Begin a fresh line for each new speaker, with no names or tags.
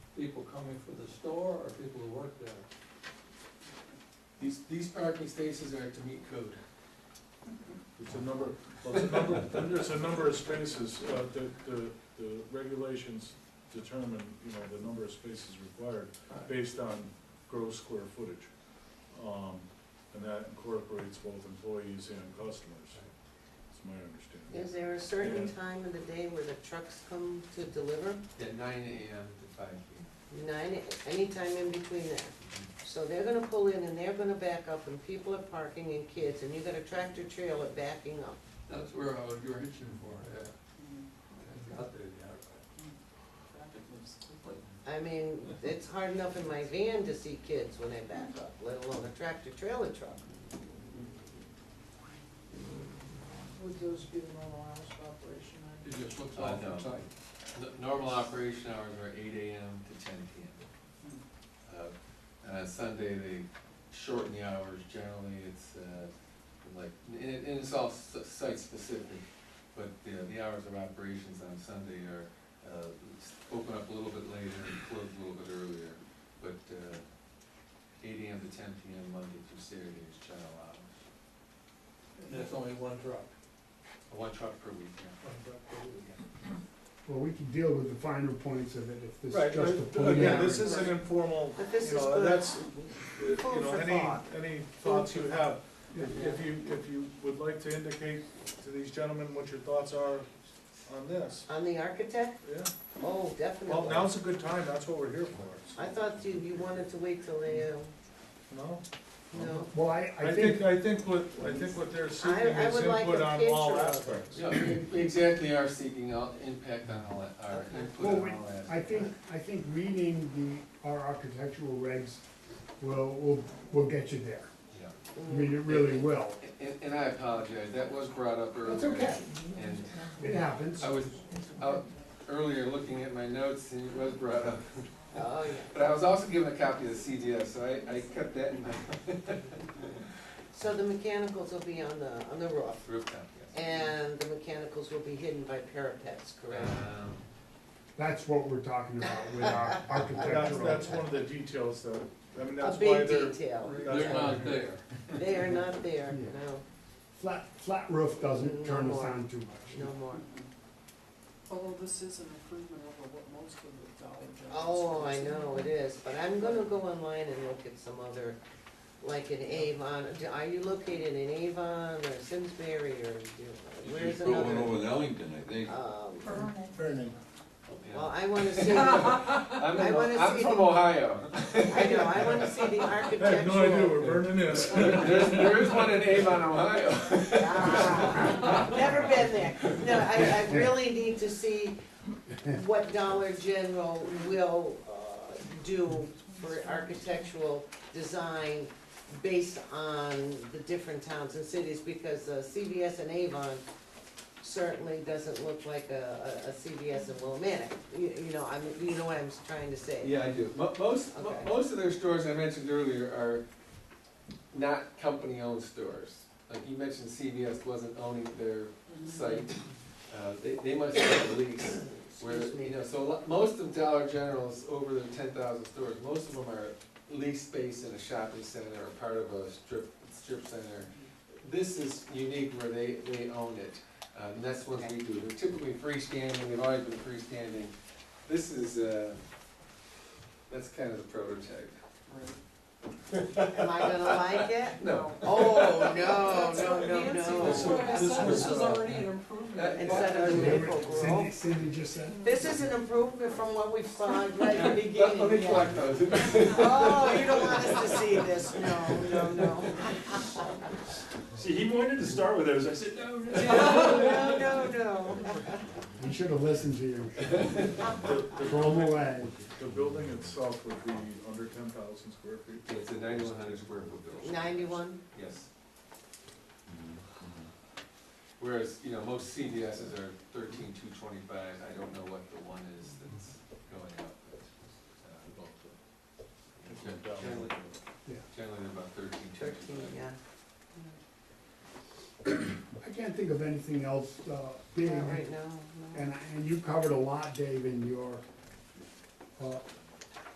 coming for the store or people who work there?
These, these parking spaces are to meet code.
It's a number, well, it's a number, then there's a number of spaces, uh, the, the, the regulations determine, you know, the number of spaces required based on gross square footage. Um, and that incorporates both employees and customers, is my understanding.
Is there a certain
Yeah.
time of the day where the trucks come to deliver?
At nine AM to five PM.
Nine, anytime in between that. So they're gonna pull in and they're gonna back up and people are parking and kids and you got a tractor trailer backing up.
That's where I was, you were hitching for, yeah. It's out there, yeah.
I mean, it's hard enough in my van to see kids when they back up, let alone a tractor trailer truck.
Would those be the normal hours of operation?
It just looks
Uh,
off
no.
the site.
The Normal operation hours are eight AM to ten PM. Uh, uh, Sunday, they shorten the hours, generally, it's, uh, like, and, it- and it's all s- site-specific, but the, the hours of operations on Sunday are, uh, s- open up a little bit later and close a little bit earlier, but, uh, eight AM to ten PM Monday through Saturday is general hours,
And that's only one truck.
one truck per week, yeah.
one truck per week.
Well, we can deal with the finer points of it if this
Right,
is just a
but
preliminary.
again, this is an informal,
But this
you
is
know,
good.
that's, you
Food
know,
for
any,
thought.
any thoughts you have.
Yeah.
If if you, if you would like to indicate to these gentlemen what your thoughts are on this,
On the architect?
yeah?
Oh,
Well,
definitely.
now's a good time, that's what we're here for,
I thought you, you wanted to wait till they, uh,
no?
no.
Well, I,
I think, I think what, I think what they're seeking
I
is
would like
input
a
on all
picture of it.
aspects.
Yeah, we- we e-, exactly are seeking out impact on all, that- our input
Well,
on
we-
all that.
I think, I think reading the, our architectural regs will, will, will get you there.
Yeah.
I mean, it really will.
And, and I apologize, that was brought up earlier.
That's okay,
And
it happens.
I was out earlier looking at my notes and it was brought up.
Oh, yeah.
But I was also given a copy of the CDS, so I, I kept that in my
So the mechanicals will be on the, on the roof.
rooftop, yes.
And the mechanicals will be hidden by parapets, correct?
Um,
That's what we're talking about with our
That's,
architectural.
that's one of the details though, I mean,
A
that's why
big
they're,
detail.
They're not there.
They are not there,
Yeah.
no,
Flat, flat roof doesn't turn us on too much.
no more.
Although this is an improvement over what most of the Dollar General.
Oh, I know it is, but I'm gonna go online and look at some other, like in Avon, are you located in Avon or Simsbury or do- where's
Going
another?
over in Ellington, I think.
Um,
yeah.
Well, I wanna see, I
I'm,
I
in- Oh-,
wanna
I'm
see
from
the-
Ohio.
know, I wanna see the
I have no idea
architectural.
where Vernon is.
There's, there is one in Avon, Ohio.
Ah, Never been there. No, I, I really need to see what Dollar General will uh, do for architectural design based on the different towns and cities, because uh, CVS and Avon certainly doesn't look like a, a- a CVS in Willimantic. You, you know, I'm, you know what I'm trying to say?
Yeah, I do. Mo- Most, mo-
Okay.
most of their stores I mentioned earlier are not company-owned stores. Like you mentioned CVS wasn't owning their
Mm-hmm.
site. Uh, They, they must have a lease where,
Excuse me.
you know, so a lot- most of Dollar General's over the ten thousand stores, most of them are lease space in a shopping center or part of a strip, strip center. This is unique where they, they own it. Uh, And that's what we do. They're typically freestanding, they've always been freestanding. This is, uh, that's kind of the prototype.
Am I gonna like it?
No.
Oh, no, no, no,
That's
no.
what I said, this is already an improvement.
Instead of the maple grove.
Cindy, Cindy just said.
This is an improvement from what we saw right at the
Let let me
beginning.
collect those.
Oh, you don't want us to see this, no, no, no.
See, he wanted to start with those, I said, no, no.
No, no, no.
We should have listened to you.
The- the
Throw them
building-
away.
The building itself would be under ten thousand square feet.
It's a ninety-one hundred square foot building.
Ninety-one,
Yes. Whereas, you know, most CVS's are thirteen two twenty-five, I don't know what the one is that's going up, but, uh, both
It's
of them.
down.
Generally,
Yeah.
generally they're about thirteen two
thirteen,
twenty-five.
yeah.
I can't think of anything else, uh, big.
Not right now, no.
And, and you covered a lot, Dave, in your, uh,